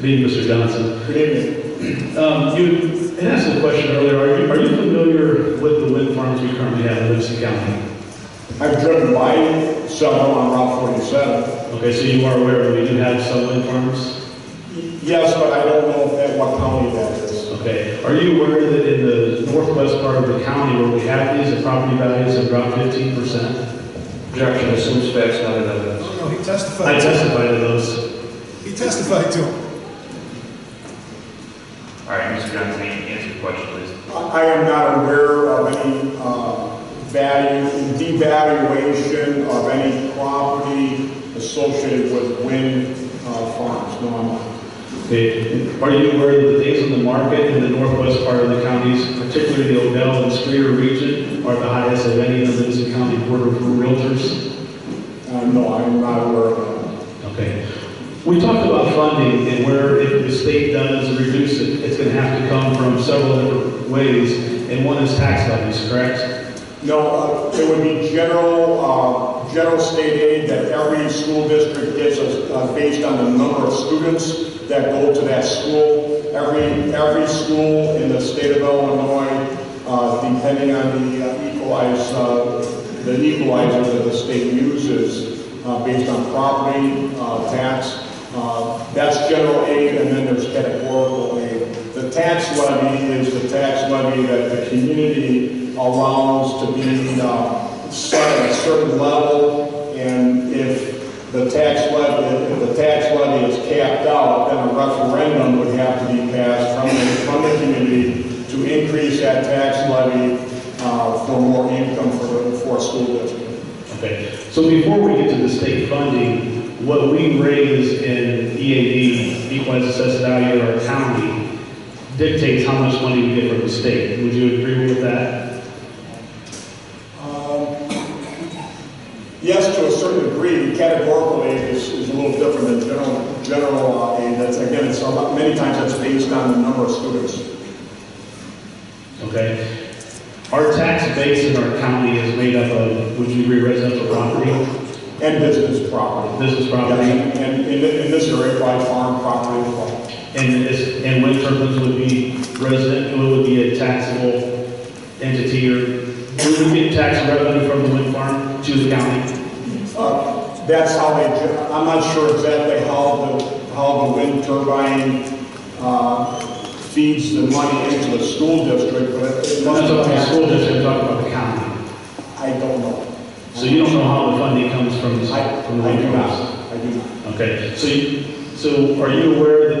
Good evening, Mr. Johnson. Good evening. Um, You had asked a question earlier, are you, are you familiar with the wind farms we currently have in Livingston County? I've driven by several on Route 47. Okay, so you are aware that we do have some wind farms? Yes, but I don't know at what county that is. Okay, are you aware that in the northwest part of the county where we have these, the property values have dropped fifteen percent? Objection, assumes facts not in evidence. No, he I testified. to testified to those. He testified to him. All right, Mr. Johnson, answer the question, please. I am not aware of any uh, value, devaluation of any property associated with wind uh, farms, no, I'm not. Okay, are you aware that the days on the market in the northwest part of the counties, particularly the Odell and Streeter region, are the highest of any in the Livingston County Board of Realtors? Uh, No, I'm not aware of Okay. We talked about funding and where if the state does reduce it, it's going to have to come from several different ways, and one is tax levies, correct? that. No, uh, it would be general, uh, general state aid that every school district gets us, uh, based on the number of students that go to that school. Every, every school in the state of Illinois, uh, depending on the uh, equalize, uh, the equalizer that the state uses uh, based on property uh, tax, uh, that's general aid, and then there's categorical aid. The tax levy is the tax levy that the community allows to be uh, set at a certain level, and if the tax levy, if the tax levy is capped out, then a referendum would have to be passed from the, from the community to increase that tax levy uh, for more income for, for a school district. Okay. So before we get to the state funding, what we raise in EAD, equalized assessed value in our county, dictates how much money we get from the state. Would you agree with that? Um, Yes, to a certain degree, categorical aid is, is a little different than general, general uh, aid. That's, again, it's a lot, many times that's based on the number of students. Okay? Our tax base in our county is made up of, would you agree, residential property, And business property. business Yeah, property? And, and in thi- in this area, probably farm property as well. And this, and wind turbines would be resident, it would be a taxable entity or, would we get tax revenue from the wind farm to the county? Uh, That's how they, gen- I'm not sure exactly how the, how the wind turbine uh, feeds the money into the school district, but it That's must what the have, school district talking about the county. I don't know. So you don't know how the funding comes from, I, from the I wind do farms? not, I do not. Okay, so you, so are you aware that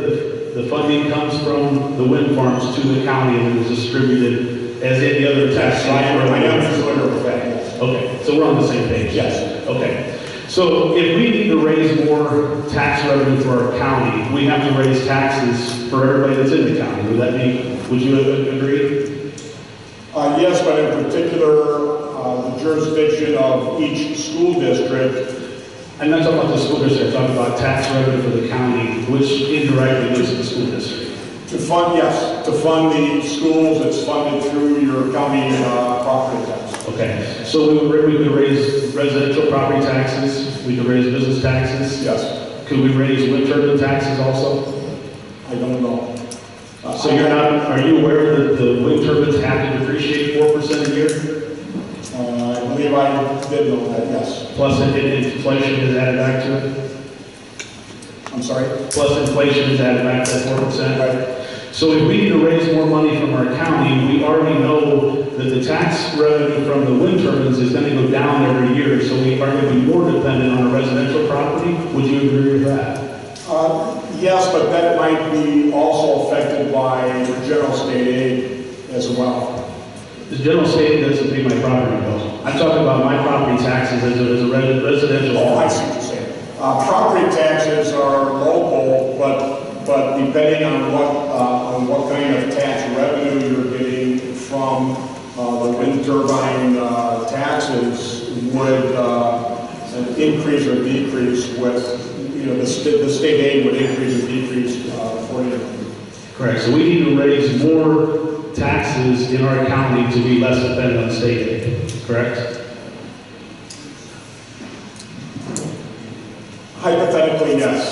the, the funding comes from the wind farms to the county and is distributed as any other tax? So I am, I am familiar with that, yes. Okay, so we're on the same page? Yes. Okay. So if we need to raise more tax revenue for our county, we have to raise taxes for everybody that's in the county. Would that be, would you a- agree? Uh, Yes, but in particular, uh, the jurisdiction of each school district, I'm not talking about the school district, I'm talking about tax revenue for the county, which indirectly goes to the school district. to fund, yes, to fund the schools, it's funded through your county uh, property tax. Okay, so we would, we could raise residential property taxes, we could raise business taxes. Yes, Could we raise wind turbine taxes also? I don't know. Uh, So you're not, are you aware that the wind turbines have to depreciate four percent a year? Uh, I believe I did know that, yes. Plus it- it- inflation is added back to it, I'm sorry. plus inflation is added back to four percent. Right. So if we need to raise more money from our county, we already know that the tax revenue from the wind turbines is gonna go down every year, so we are gonna be more dependent on a residential property. Would you agree with that? Uh, Yes, but that might be also affected by general state aid as well. The general state doesn't pay my property bill. I'm talking about my property taxes as a, as a re- residential. Oh, I see what you're saying. Uh, Property taxes are local, but, but depending on what, uh, on what kind of tax revenue you're getting from uh, the wind turbine uh, taxes would uh, increase or decrease with, you know, the state, the state aid would increase or decrease uh, for you. Correct, so we need to raise more taxes in our county to be less dependent on state aid, correct? Hypothetically, yes. Uh,